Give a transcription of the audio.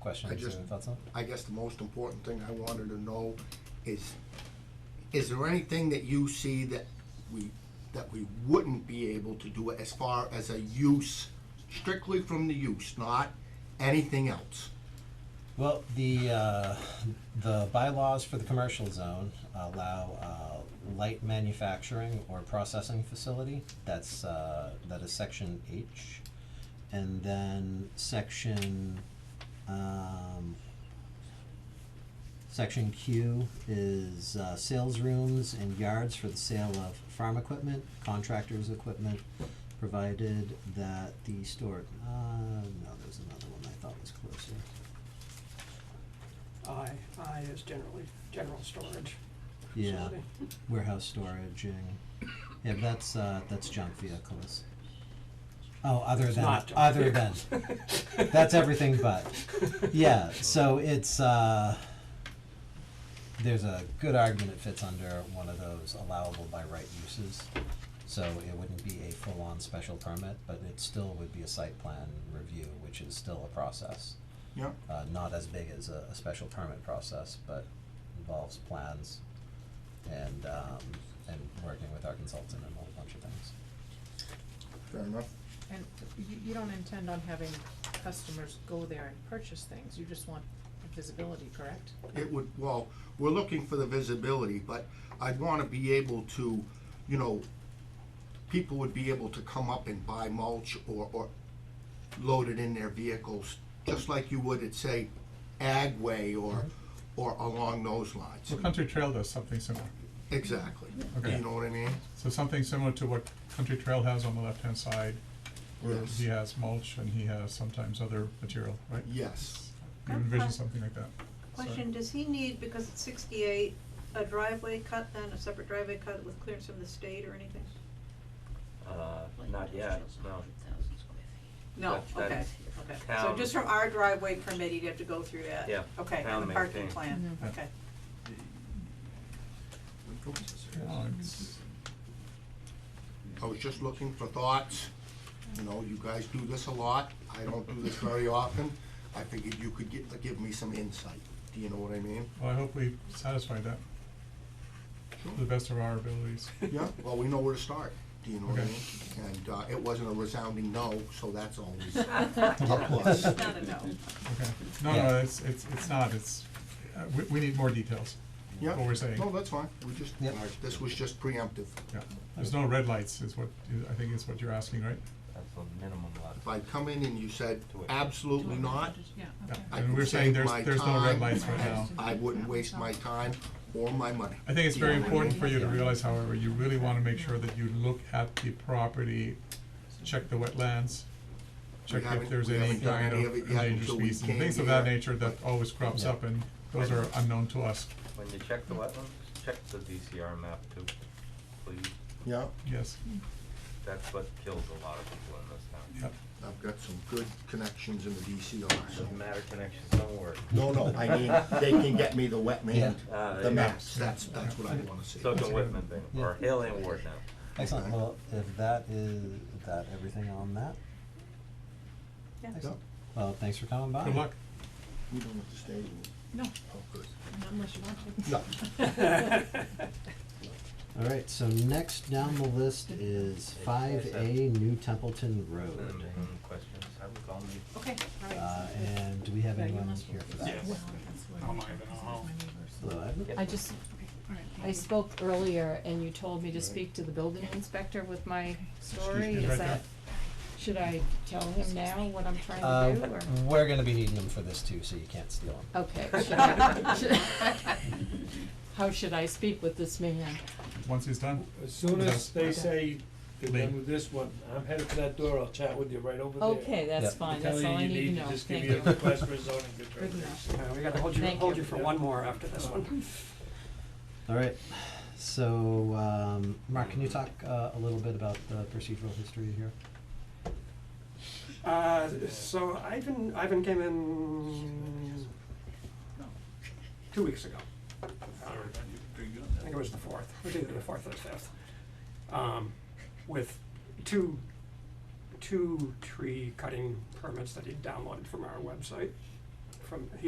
questions just- or thoughts on? I guess the most important thing I wanted to know is, is there anything that you see that we, that we wouldn't be able to do as far as a use, strictly from the use, not anything else? Well, the, uh, the bylaws for the commercial zone allow, uh, light manufacturing or processing facility, that's, uh, that is section H. And then section, um, section Q is, uh, sales rooms and yards for the sale of farm equipment, contractors' equipment, provided that the store, uh, no, there's another one I thought was closer. I, I is generally general storage Yeah, facility. warehouse storage and, yeah, that's, uh, that's junk vehicles. Oh, other It's than, not junk other than, vehicles. that's everything but, yeah, so it's, uh, there's a good argument it fits under one of those allowable by right uses. So it wouldn't be a full-on special permit, but it still would be a site plan review, which is still a process. Yeah. Uh, not as big as a, a special permit process, but involves plans and, um, and working with our consultant and a whole bunch of things. Fair enough. And you, you don't intend on having customers go there and purchase things, you just want visibility, correct? It would, well, we're looking for the visibility, but I'd wanna be able to, you know, people would be able to come up and buy mulch or, or load it in their vehicles, just like you would at, say, Agway or, or along those lines. Well, Country Trail does something similar. Exactly. Okay. You know what I mean? So something similar to what Country Trail has on the left-hand side, where Yes. he has mulch and he has sometimes other material, right? Yes. You envision something like that. Sorry. Question, does he need, because it's sixty-eight, a driveway cut then, a separate driveway cut with clearance from the state or anything? Uh, not yet, no. No, That- okay, that's okay. So town- just from our driveway permit, he'd have to go through that? Yeah, Okay, town and the parking maintained. plan, Mhm. okay. Yeah, it's- I was just looking for thoughts. You know, you guys do this a lot. I don't do this very often. I figured you could give, give me some insight. Do you know what I mean? Well, I hope we satisfy that to the best of our abilities. Yeah, well, we know where to start. Do you know what I Okay. mean? And, uh, it wasn't a resounding no, so that's always a plus. Not a no. Okay. No, no, it's, it's, it's not, it's, uh, we, we need more details. Yeah. What we're saying. No, that's fine. We just, Yep. this was just preemptive. Yeah. There's no red lights is what, I think is what you're asking, right? That's the minimum lot. If I come in and you said To it. absolutely not, Yeah, Yeah. okay. I And could we're saying save my there's, there's no red time. lights right now. I wouldn't waste my time or my money. I think it's Do you know very what I important mean? for you to realize, however, you really wanna make sure that you look at the property, check the wetlands, We check if haven't- there's we any haven't done kind any of of it yet endangered until we species, came things of that here. nature that oh. always crops Yeah. up, and those are unknown to us, When you check the wetlands, check the DCR map too, please. Yeah, yes, That's what kills a lot of people in this yeah. town. I've got some good connections in the DCR, so. Doesn't matter, connections don't work. No, no, I mean, they can get me the wet man, Yeah. Ah, there the you go. maps, that's, that's what I wanna see. So can Whitman thing, or Hill and Ward now. Excellent, Okay. well, if that is, is that everything on that? Yeah. Excellent. Well, thanks for coming by. Good luck. We don't have to stay, we- No, oh, good. not unless you want to. No, All right, so next down the list is five A New Templeton Road. Mm-hmm. Minimum questions, I would call me. Okay, all Uh, right. and do we have Yeah, you anyone must- here for that? Well, that's what I'm trying to say, my neighbors. Hello, Edna? I just, Okay, all right, thank I you. spoke earlier and you told me to speak to the building inspector with my story, me, right is there. that, should I tell him now what I'm Uh, trying to do, or? we're gonna be needing them for this too, so you can't steal them. Okay, should I, should- how should I speak with this man? Once he's done, As soon as they say they're Lee. done with this one, I'm headed for that door, I'll chat with you right over there. Okay, Yeah. that's fine, that's all I need to know, Just give thank me you. a request for a zoning Good determination. enough. Uh, we gotta hold you, Thank hold you. you for one more after this one. All right, so, um, Mark, can you talk, uh, a little bit about the procedural history here? Uh, so Ivan, Ivan came in two weeks ago. Uh, I think it was the fourth, it was either the fourth or the fifth. Um, with two, two tree cutting permits that he downloaded from our website. from,